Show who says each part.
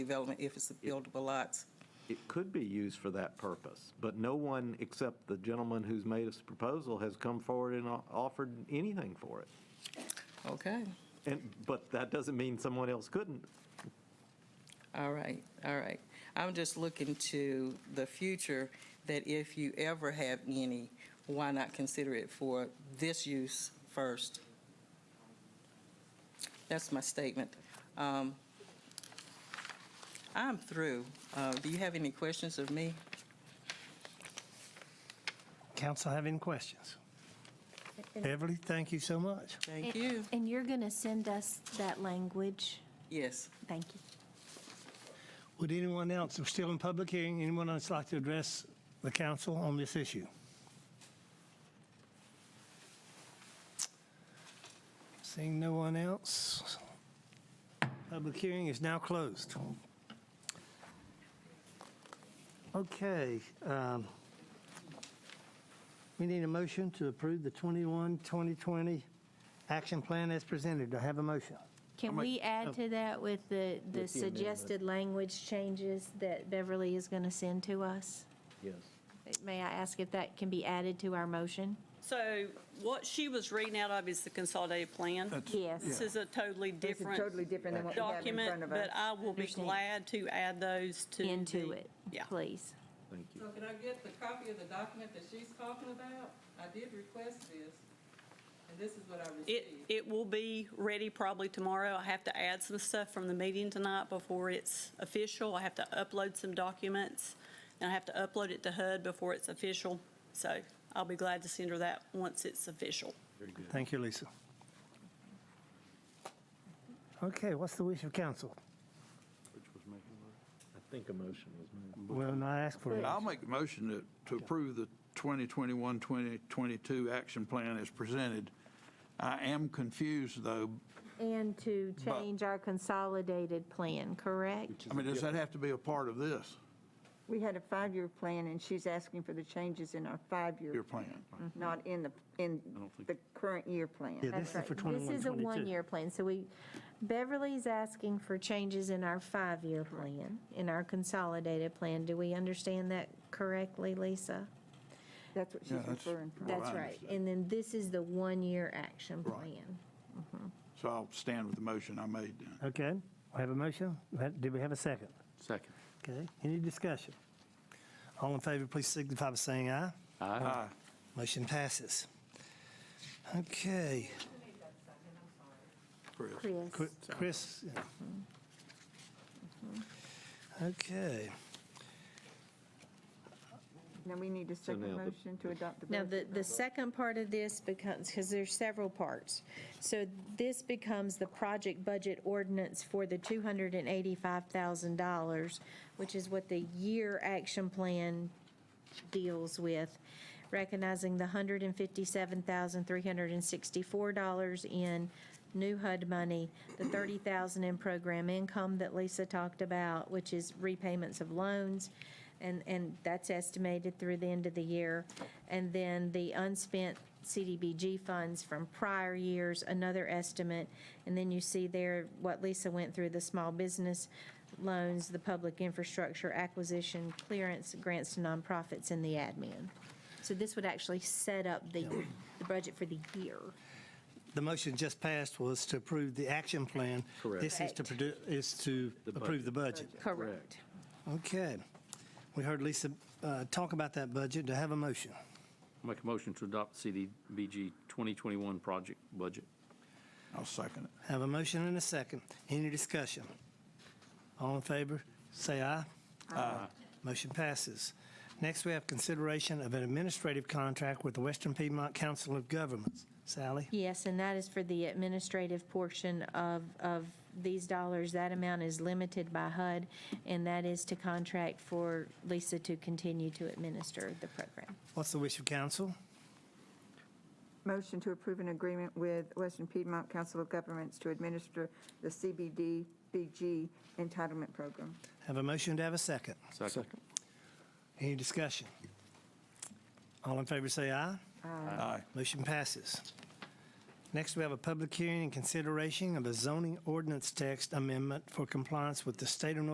Speaker 1: development if it's buildable lots.
Speaker 2: It could be used for that purpose, but no one except the gentleman who's made this proposal has come forward and o- offered anything for it.
Speaker 1: Okay,
Speaker 2: And, but that doesn't mean someone else couldn't.
Speaker 1: all right, all right. I'm just looking to the future, that if you ever have any, why not consider it for this use first? That's my statement. Um, I'm through. Uh, Do you have any questions of me?
Speaker 3: Council have any questions? Beverly, thank you so much.
Speaker 1: Thank you.
Speaker 4: And you're going to send us that language?
Speaker 1: Yes.
Speaker 4: Thank you.
Speaker 3: Would anyone else, we're still in public hearing, anyone else like to address the council on this issue? Seeing no one else, public hearing is now closed. Okay, um, we need a motion to approve the 21, 2020 action plan as presented. Do I have a motion?
Speaker 4: Can we add to that with the, the suggested language changes that Beverly is going to send to us?
Speaker 2: Yes.
Speaker 4: May I ask if that can be added to our motion?
Speaker 5: So what she was reading out of is the consolidated plan. This
Speaker 4: Yes.
Speaker 5: is a totally
Speaker 6: This is
Speaker 5: different
Speaker 6: totally different than what we have in front
Speaker 5: document,
Speaker 6: of us.
Speaker 5: but I will be
Speaker 4: Understand.
Speaker 5: glad to add those to.
Speaker 4: Into
Speaker 5: the-
Speaker 4: it,
Speaker 5: Yeah.
Speaker 4: please.
Speaker 2: Thank you.
Speaker 1: So can I get the copy of the document that she's talking about? I did request this, and this is what I
Speaker 5: It,
Speaker 1: received.
Speaker 5: it will be ready probably tomorrow. I have to add some stuff from the meeting tonight before it's official. I have to upload some documents, and I have to upload it to HUD before it's official. So I'll be glad to send her that once it's official.
Speaker 3: Thank you, Lisa. Okay, what's the wish of council?
Speaker 2: I think a motion was made.
Speaker 3: Well, no, I asked for it.
Speaker 7: I'll make a motion to, to approve the 2021, 2022 action plan as presented. I am confused, though.
Speaker 4: And to change our consolidated plan, correct?
Speaker 7: I mean, does that have to be a part of this,
Speaker 6: We had a five-year plan, and she's asking for the changes in our five-year,
Speaker 7: your plan?
Speaker 6: not in the, in the current year plan.
Speaker 3: Yeah,
Speaker 4: That's
Speaker 3: this is for
Speaker 4: right.
Speaker 3: 21,
Speaker 4: This is a
Speaker 3: 22.
Speaker 4: one-year plan, so we, Beverly's asking for changes in our five-year plan, in our consolidated plan. Do we understand that correctly, Lisa?
Speaker 6: That's what
Speaker 7: Yeah,
Speaker 6: she's
Speaker 7: that's-
Speaker 6: referring from.
Speaker 4: That's
Speaker 7: I
Speaker 4: right.
Speaker 7: understand.
Speaker 4: And then this is the one-year action
Speaker 7: Right.
Speaker 4: plan.
Speaker 7: So I'll stand with the motion I made then.
Speaker 3: Okay, we have a motion. Ha- Do we have a second?
Speaker 8: Second.
Speaker 3: Okay, any discussion? All in favor, please signify by saying aye.
Speaker 7: Aye.
Speaker 3: Motion passes. Okay,
Speaker 7: Chris.
Speaker 3: Qu-
Speaker 4: Chris,
Speaker 3: Chris. yeah. Okay,
Speaker 6: Now, we need a second
Speaker 2: now the-
Speaker 6: motion to adopt the
Speaker 4: now,
Speaker 6: budget.
Speaker 4: the, the second part of this becomes, because there's several parts. So this becomes the project budget ordinance for the $285,000, which is what the year action plan deals with, recognizing the $157,364 in new HUD money, the $30,000 in program income that Lisa talked about, which is repayments of loans, and, and that's estimated through the end of the year. And then the unspent CDBG funds from prior years, another estimate. And then you see there what Lisa went through, the small business loans, the public infrastructure acquisition, clearance, grants to nonprofits, and the admin. So this would actually set up the, the budget for the year.
Speaker 3: the motion just passed was to approve the action plan.
Speaker 2: Correct.
Speaker 3: This is to, produ- is to approve the budget.
Speaker 4: Correct.
Speaker 3: Okay, we heard Lisa uh, talk about that budget. Do I have a motion?
Speaker 8: Make a motion to adopt CDBG 2021 project budget.
Speaker 7: I'll second it.
Speaker 3: Have a motion and a second. Any discussion? All in favor, say aye. Aye. Motion passes. Next, we have consideration of an administrative contract with the Western Piedmont Council of Governments. Sally?
Speaker 4: Yes, and that is for the administrative portion of, of these dollars. That amount is limited by HUD, and that is to contract for Lisa to continue to administer the program.
Speaker 3: What's the wish of council?
Speaker 6: Motion to approve an agreement with Western Piedmont Council of Governments to administer the CBDBG entitlement program.
Speaker 3: Have a motion to have a second.
Speaker 8: Second.
Speaker 3: Any discussion? All in favor, say aye.
Speaker 7: Aye.
Speaker 3: Motion passes. Next, we have a public hearing and consideration of a zoning ordinance text amendment for compliance with the state of North